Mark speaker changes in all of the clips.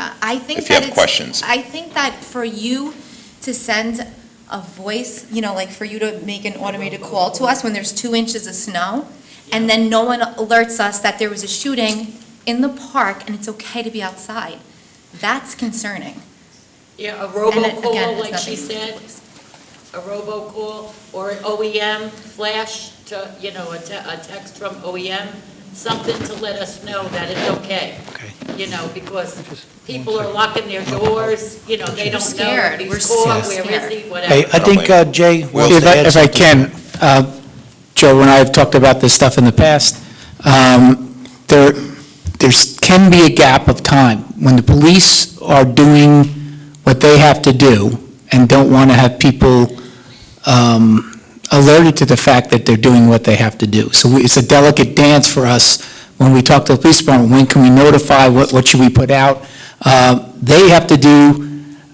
Speaker 1: Uh, I think
Speaker 2: if you
Speaker 1: that
Speaker 2: have
Speaker 1: it's,
Speaker 2: questions.
Speaker 1: I think that for you to send a voice, you know, like for you to make an automated call to us when there's two inches of snow, and then no one alerts us that there was a shooting in the park and it's okay to be outside, that's concerning.
Speaker 3: Yeah, a
Speaker 1: And it- again,
Speaker 3: robo-call,
Speaker 1: it's
Speaker 3: like she
Speaker 1: nothing to do with
Speaker 3: said,
Speaker 1: the police.
Speaker 3: a robo-call, or an OEM flash to, you know, a te- a text from OEM, something to let us know that it's okay,
Speaker 4: Okay.
Speaker 3: you know, because
Speaker 4: Just one
Speaker 3: people are
Speaker 4: second. Oh,
Speaker 3: locking their doors, you know, they
Speaker 1: We're
Speaker 3: don't know
Speaker 1: scared.
Speaker 3: if
Speaker 1: We're
Speaker 3: he's
Speaker 1: so
Speaker 3: called, where
Speaker 1: scared.
Speaker 3: is he,
Speaker 4: Hey,
Speaker 3: whatever.
Speaker 4: I think, uh, Jay,
Speaker 2: Well,
Speaker 4: if I, if I can, uh, Joe and I have talked about this stuff in the past, um, there, there's, can be a gap of time when the police are doing what they have to do and don't want to have people, um, alerted to the fact that they're doing what they have to do. So we- it's a delicate dance for us when we talk to the police department, when can we notify, what, what should we put out? Uh, they have to do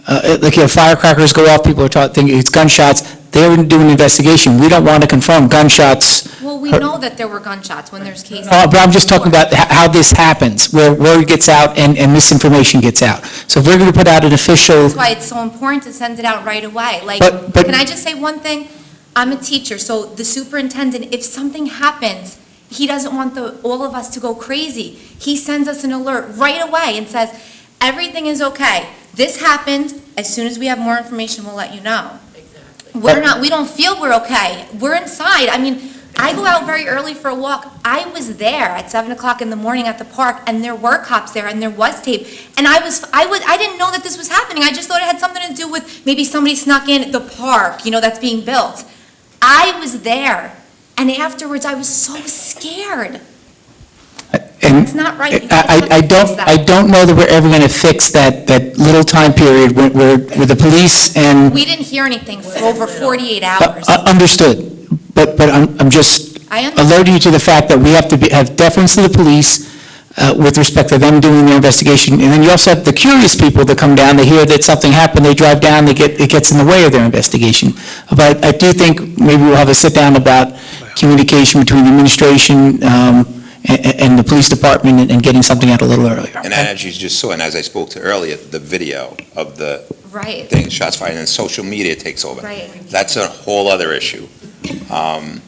Speaker 4: uh, like, you know, firecrackers go off, people are taught, thinking it's gunshots, they wouldn't do an investigation, we don't want to confirm gunshots,
Speaker 1: Well, we
Speaker 4: Her-
Speaker 1: know that there were gunshots when there's cases.
Speaker 4: Uh, but I'm just talking about h- how this happens, where word gets out and, and misinformation gets out. So if we're going to put out an official,
Speaker 1: That's why it's so important to send it out right away. Like,
Speaker 4: But- but-
Speaker 1: can I just say one thing? I'm a teacher, so the superintendent, if something happens, he doesn't want the, all of us to go crazy. He sends us an alert right away and says, everything is okay. This happened. As soon as we have more information, we'll let you know.
Speaker 3: Exactly.
Speaker 1: We're not, we don't feel we're okay. We're inside. I mean, I go out very early for a walk. I was there at seven o'clock in the morning at the park, and there were cops there, and there was tape. And I was, I was, I didn't know that this was happening. I just thought it had something to do with maybe somebody snuck in the park, you know, that's being built. I was there, and afterwards, I was so scared.
Speaker 4: and
Speaker 1: It's not right. You
Speaker 4: I,
Speaker 1: can't
Speaker 4: I I don't,
Speaker 1: fix that.
Speaker 4: I don't know that we're ever going to fix that, that little time period where, where where the police and,
Speaker 1: We didn't hear anything for over forty-eight
Speaker 4: Uh,
Speaker 1: hours.
Speaker 4: uh, understood, but, but I'm, I'm just,
Speaker 1: I understand.
Speaker 4: alert you to the fact that we have to be- have deference to the police uh, with respect to them doing their investigation. And then you also have the curious people that come down, they hear that something happened, they drive down, they get, it gets in the way of their investigation. But I do think maybe we'll have a sit-down about communication between the administration um, and and the police department and- and getting something out a little earlier.
Speaker 2: And as you just saw, and as I spoke to earlier, the video of the
Speaker 1: Right,
Speaker 2: thing, shots fired, and then social media takes over.
Speaker 1: right.
Speaker 2: That's a whole other issue. Um,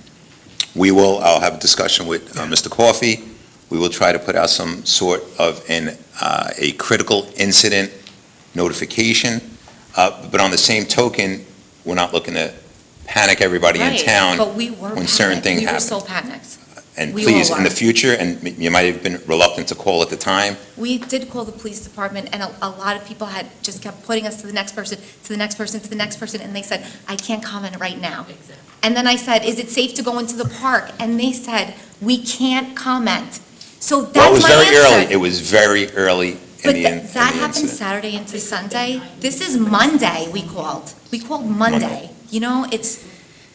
Speaker 2: We will, I'll have a discussion with uh, Mr. Coffey. We will try to put out some sort of an, uh, a critical incident notification. Uh, But on the same token, we're not looking to panic everybody in
Speaker 1: Right.
Speaker 2: town.
Speaker 1: But we were
Speaker 2: when certain
Speaker 1: panicked.
Speaker 2: thing
Speaker 1: We were
Speaker 2: happened.
Speaker 1: so panicked.
Speaker 2: And
Speaker 1: we
Speaker 2: please,
Speaker 1: will
Speaker 2: in the
Speaker 1: work.
Speaker 2: future, and you might have been reluctant to call at the time,
Speaker 1: We did call the police department, and a, a lot of people had just kept putting us to the next person, to the next person, to the next person, and they said, I can't comment right now.
Speaker 3: Exactly.
Speaker 1: And then I said, is it safe to go into the park? And they said, we can't comment. So
Speaker 2: Well, it
Speaker 1: that's
Speaker 2: was
Speaker 1: my
Speaker 2: very early,
Speaker 1: answer.
Speaker 2: it was very early in
Speaker 1: But
Speaker 2: the,
Speaker 1: tha-
Speaker 2: in- in
Speaker 1: that
Speaker 2: the
Speaker 1: happened
Speaker 2: incident.
Speaker 1: Saturday into Sunday. This is Monday, we called. We called Monday. You know, it's,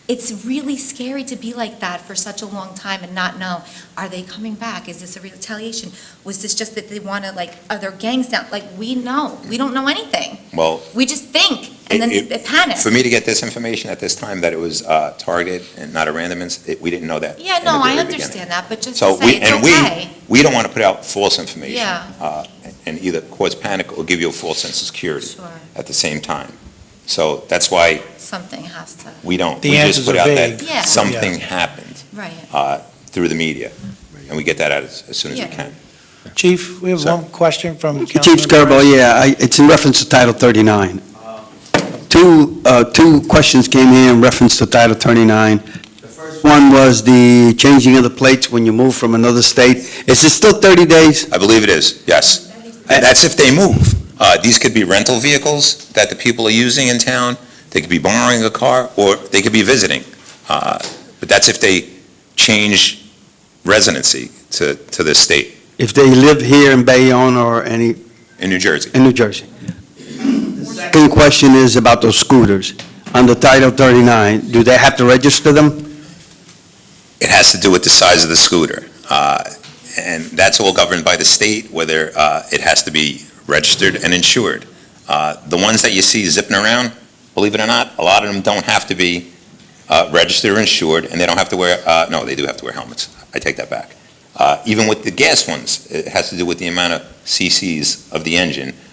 Speaker 1: it's really scary to be like that for such a long time and not know, are they coming back? Is this a retaliation? Was this just that they want to, like, are there gangs down? Like, we know, we don't know anything.
Speaker 2: Well,
Speaker 1: We just think, and then
Speaker 2: It- it-
Speaker 1: they panic.
Speaker 2: for me to get this information at this time, that it was uh, targeted and not a random incident, we didn't know that.
Speaker 1: Yeah,
Speaker 2: in the
Speaker 1: no, I
Speaker 2: very beginning.
Speaker 1: understand that, but just
Speaker 2: So
Speaker 1: to
Speaker 2: we,
Speaker 1: say
Speaker 2: and
Speaker 1: it's
Speaker 2: we,
Speaker 1: okay.
Speaker 2: we don't want to put out false information.
Speaker 1: Yeah.
Speaker 2: uh, And either cause panic or give you a false sense of security
Speaker 1: Sure,
Speaker 2: at the same time. So that's why
Speaker 1: something has to,
Speaker 2: we don't,
Speaker 5: The
Speaker 2: we just
Speaker 5: answers
Speaker 2: put
Speaker 5: are
Speaker 2: out that
Speaker 1: vague. Yeah.
Speaker 2: something happened
Speaker 1: right.
Speaker 2: uh, through the media. And we get that out as as soon as we
Speaker 1: Yeah.
Speaker 2: can.
Speaker 5: Chief, we have
Speaker 2: Sir.
Speaker 5: one question from Councilman.
Speaker 6: Chief Skirbo, yeah, I- it's in reference to Title 39. Two, uh, two questions came here in reference to Title 39. The first one was the changing of the plates when you move from another state. Is it still 30 days?
Speaker 2: I believe it is, yes. And that's if they move. Uh, These could be rental vehicles that the people are using in town, they could be borrowing a car, or they could be visiting. Uh, But that's if they change residency to, to this state,
Speaker 6: If they live here in Bayonne or any,
Speaker 2: in New Jersey.
Speaker 6: in New Jersey? The Second question is about those scooters. Under Title 39, do they have to register them?
Speaker 2: It has to do with the size of the scooter. Uh, And that's all governed by the state, whether uh, it has to be registered and insured. Uh, The ones that you see zipping around, believe it or not, a lot of them don't have to be uh, registered or insured, and they don't have to wear, uh, no, they do have to wear helmets. I take that back. Uh, Even with the gas ones, it has to do with the amount of CCs of the engine.